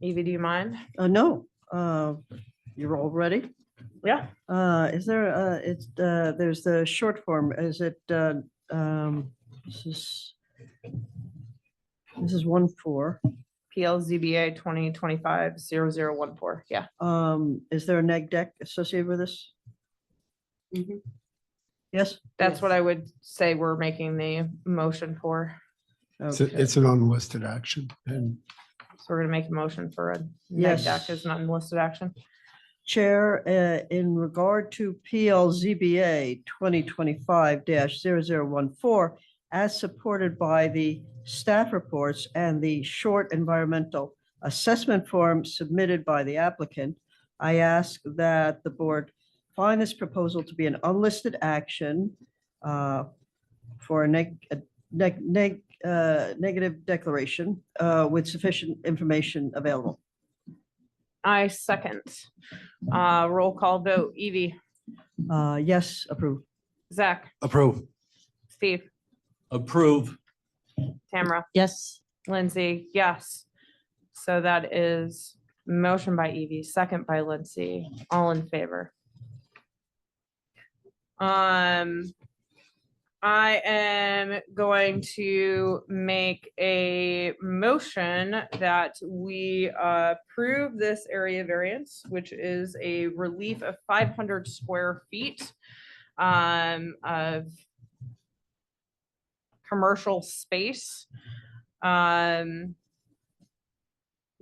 Evie, do you mind? Uh, no, uh, you're all ready. Yeah. Uh, is there, uh, it's, uh, there's the short form, is it, uh, um, this is, this is one four. PLZBA twenty twenty-five zero zero one four. Yeah. Um, is there a neg deck associated with this? Mhm. Yes? That's what I would say we're making the motion for. It's, Okay. a- it's an unlisted action and So we're gonna make a motion for a neg Yes. deck as an unlisted action. Chair, uh, in regard to PLZBA 2025-0014, as supported by the staff reports and the short environmental assessment form submitted by the applicant, I ask that the board find this proposal to be an unlisted action uh, for a neg, a neg, neg- uh, negative declaration uh, with sufficient information available. I second. Uh, roll call vote. Evie, Uh, Yes, approved. Zach, Approve. Steve, Approve. Tamara, Yes. Lindsay, yes. So that is motion by Evie, second by Lindsay, all in favor. Um, I am going to make a motion that we uh, approve this area variance, which is a relief of five hundred square feet um, of commercial space. Um,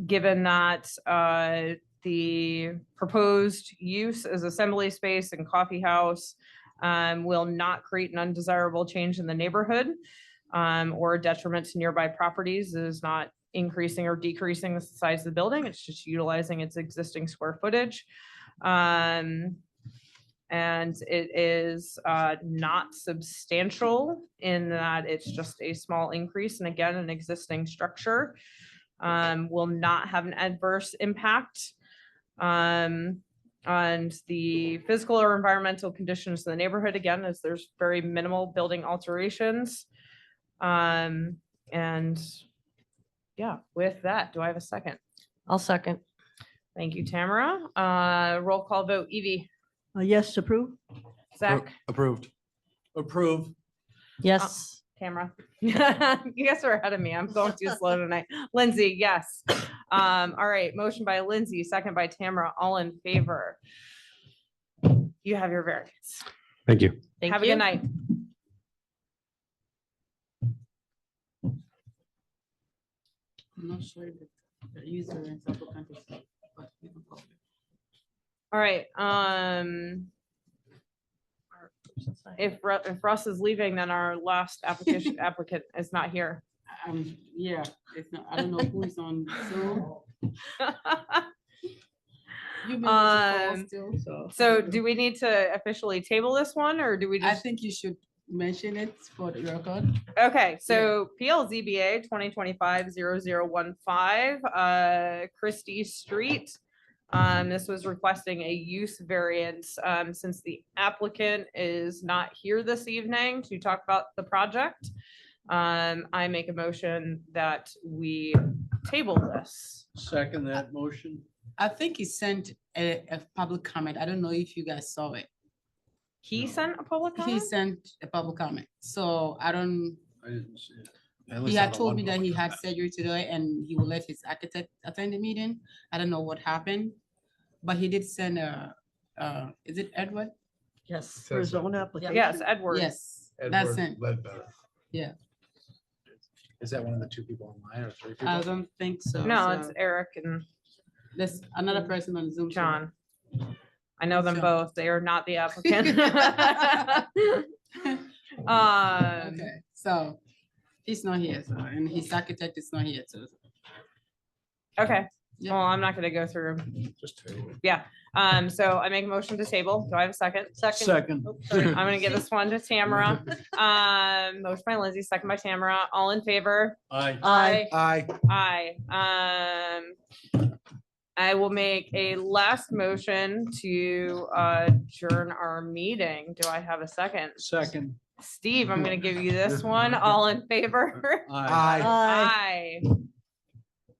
given that, uh, the proposed use as assembly space and coffee house um, will not create an undesirable change in the neighborhood um, or detriment to nearby properties It is not increasing or decreasing the size of the building. It's just utilizing its existing square footage. Um, and it is uh, not substantial in that it's just a small increase and again, an existing structure um, will not have an adverse impact um, on the physical or environmental conditions in the neighborhood. Again, as there's very minimal building alterations. Um, And yeah, with that, do I have a second? I'll second. Thank you, Tamara. Uh, Roll call vote, Evie, Uh, Yes, approved. Zach, Approved. Approve. Yes. Tamara. You guys are ahead of me. I'm going too slow tonight. Lindsay, yes. Um, all right, motion by Lindsay, second by Tamara, all in favor. You have your variance. Thank you. Thank Have a you. good night. I'm not sure that the user in South Country, but we can call it. All right, um. If Ru- if Russ is leaving, then our last application applicant is not here. Um, yeah, it's not, I don't know who is on Zoom. You've been able to Um, call still, so. So do we need to officially table this one or do we I just? think you should mention it for the record. Okay, so PLZBA 2025-0015, uh, Christie Street. Um, This was requesting a use variance um, since the applicant is not here this evening to talk about the project. Um, I make a motion that we table this. Second that motion. I think he sent a, a public comment. I don't know if you guys saw it. He sent a public He comment? sent a public comment, so I don't, I didn't see it. he had told me that he had surgery today and he will let his architect attend the meeting. I don't know what happened, but he did send a, uh, is it Edward? Yes. For his own application. Yes, Edward. Yes, that's it. Yeah. Is that one of the two people online or three I don't think so. No, so it's Eric and There's another person on Zoom. so- John. I know them John. both. They are not the applicant. Um, Okay, so he's not here, so, and his architect is not here, so. okay, Yeah. well, I'm not gonna go through. 'em. Just two. Um, so I make a motion to table. Do I have a second? Second. I'm gonna give this one to Tamara. Um, motion by Lindsay, second by Tamara. All in favor? Aye. Aye. Aye. Aye. Um, I will make a last motion to uh, adjourn our meeting. Do I have a second? Second. Steve, I'm gonna give you this one. All in favor? Uh, Aye. Aye.